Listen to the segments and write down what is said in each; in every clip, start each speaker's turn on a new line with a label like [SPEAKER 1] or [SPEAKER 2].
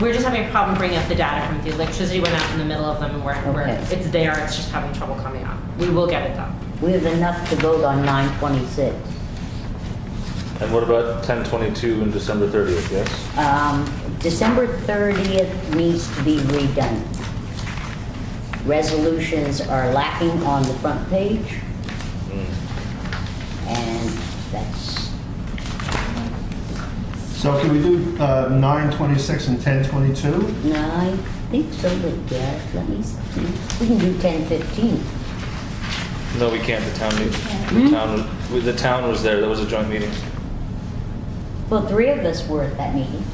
[SPEAKER 1] We're just having a problem bringing up the data from the electricity went out in the middle of them and we're, we're,
[SPEAKER 2] Okay.
[SPEAKER 1] it's there, it's just having trouble coming out. We will get it done.
[SPEAKER 2] We have enough to vote on nine twenty-six.
[SPEAKER 3] And what about 1022 and December 30th, yes?
[SPEAKER 2] Um, December thirtieth needs to be redone. Resolutions are lacking on the front page, Mm. and that's,
[SPEAKER 4] So can we do uh, 9:26 and 10:22?
[SPEAKER 2] no, I think so, but yeah, let me see. We can do ten fifteen.
[SPEAKER 3] No, we can't, the town meeting.
[SPEAKER 2] Hmm?
[SPEAKER 3] The town, was- the town was there, that was a joint meeting.
[SPEAKER 2] Well, three of us were at that meeting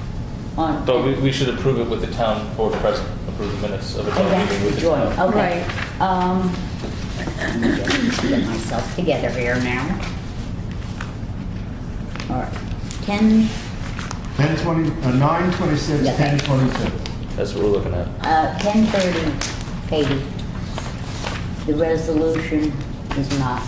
[SPEAKER 2] on.
[SPEAKER 3] But we, we should approve it with the town board present, approve the minutes of a
[SPEAKER 2] Oh,
[SPEAKER 3] joint
[SPEAKER 2] that's
[SPEAKER 3] meeting
[SPEAKER 2] the
[SPEAKER 3] with the
[SPEAKER 2] joint,
[SPEAKER 3] town.
[SPEAKER 2] okay. Um, let me just Get myself together here now. All right, 10,
[SPEAKER 4] 10:20, uh, 9:26,
[SPEAKER 2] Yeah.
[SPEAKER 4] 10:22.
[SPEAKER 3] That's what we're looking at.
[SPEAKER 2] uh, 10:30, Katie. The resolution is not,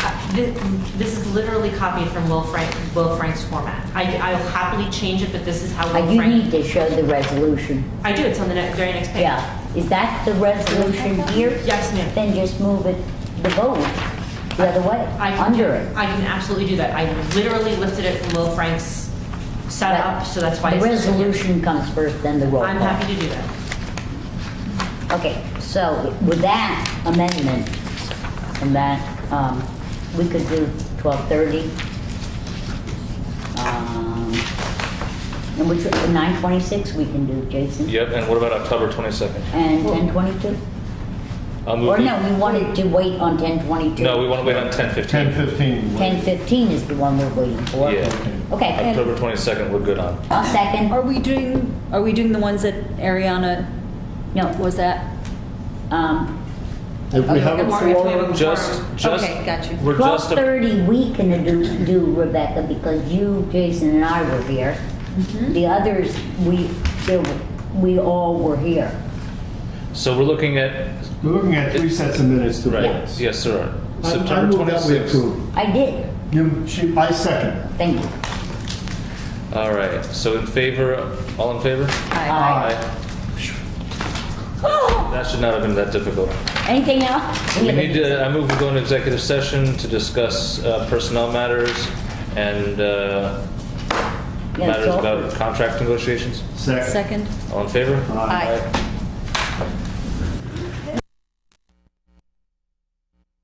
[SPEAKER 1] Uh, thi- This is literally copied from Will Frank, Will Frank's format. I, I'll happily change it, but this is how
[SPEAKER 2] I
[SPEAKER 1] Will
[SPEAKER 2] do
[SPEAKER 1] Frank.
[SPEAKER 2] need to show the resolution.
[SPEAKER 1] I do, it's on the ne- very next page.
[SPEAKER 2] Yeah, is that the resolution here?
[SPEAKER 1] Yes, ma'am.
[SPEAKER 2] Then just move it, the vote, the other way,
[SPEAKER 1] I can do-
[SPEAKER 2] under it.
[SPEAKER 1] I can absolutely do that. I literally lifted it from Will Frank's setup, so that's why.
[SPEAKER 2] The
[SPEAKER 1] it's listed here.
[SPEAKER 2] resolution comes first, then the roll call.
[SPEAKER 1] I'm happy to do that.
[SPEAKER 2] Okay, so with that amendment, and that, um, we could do twelve thirty. Um, and which, nine twenty-six we can do, Jason?
[SPEAKER 3] Yep, and what about October 22nd?
[SPEAKER 2] And ten twenty-two?
[SPEAKER 3] I'll move
[SPEAKER 2] Or
[SPEAKER 3] the-
[SPEAKER 2] no, we wanted to wait on ten twenty-two?
[SPEAKER 3] No, we want to wait on 1015.
[SPEAKER 4] 10:15.
[SPEAKER 2] Ten fifteen is the one we're waiting for.
[SPEAKER 3] Yeah.
[SPEAKER 2] Okay,
[SPEAKER 3] October 22nd, we're good on.
[SPEAKER 2] I'll second.
[SPEAKER 5] Are we doing, are we doing the ones that Ariana
[SPEAKER 2] No,
[SPEAKER 5] was at?
[SPEAKER 2] um,
[SPEAKER 4] If we have a
[SPEAKER 1] Mark, if we have
[SPEAKER 4] quorum,
[SPEAKER 1] a
[SPEAKER 3] Just,
[SPEAKER 1] quorum.
[SPEAKER 3] just.
[SPEAKER 5] Okay, got you.
[SPEAKER 3] We're
[SPEAKER 2] twelve
[SPEAKER 3] just, a-
[SPEAKER 2] thirty, we can do, do Rebecca, because you, Jason, and I were here.
[SPEAKER 5] Mm-hmm.
[SPEAKER 2] The others, we, there were- we all were here.
[SPEAKER 3] so we're looking at,
[SPEAKER 4] we're looking at three sets of minutes to
[SPEAKER 3] right,
[SPEAKER 4] vote.
[SPEAKER 3] yes, sir.
[SPEAKER 4] I- I
[SPEAKER 3] September
[SPEAKER 4] move that we
[SPEAKER 3] 26th.
[SPEAKER 4] approve.
[SPEAKER 2] I did,
[SPEAKER 4] You- she- I second.
[SPEAKER 2] thank you.
[SPEAKER 3] All right, so in favor, all in favor?
[SPEAKER 5] Aye.
[SPEAKER 3] That should not have been that difficult.
[SPEAKER 2] Uh, Anything else?
[SPEAKER 3] We need to, I move we go into executive session to discuss uh, personnel matters and uh,
[SPEAKER 2] Yeah,
[SPEAKER 3] matters
[SPEAKER 2] so-
[SPEAKER 3] about contract negotiations.
[SPEAKER 4] Second.
[SPEAKER 5] Second?
[SPEAKER 3] All in favor?
[SPEAKER 4] Aye.
[SPEAKER 5] Aye.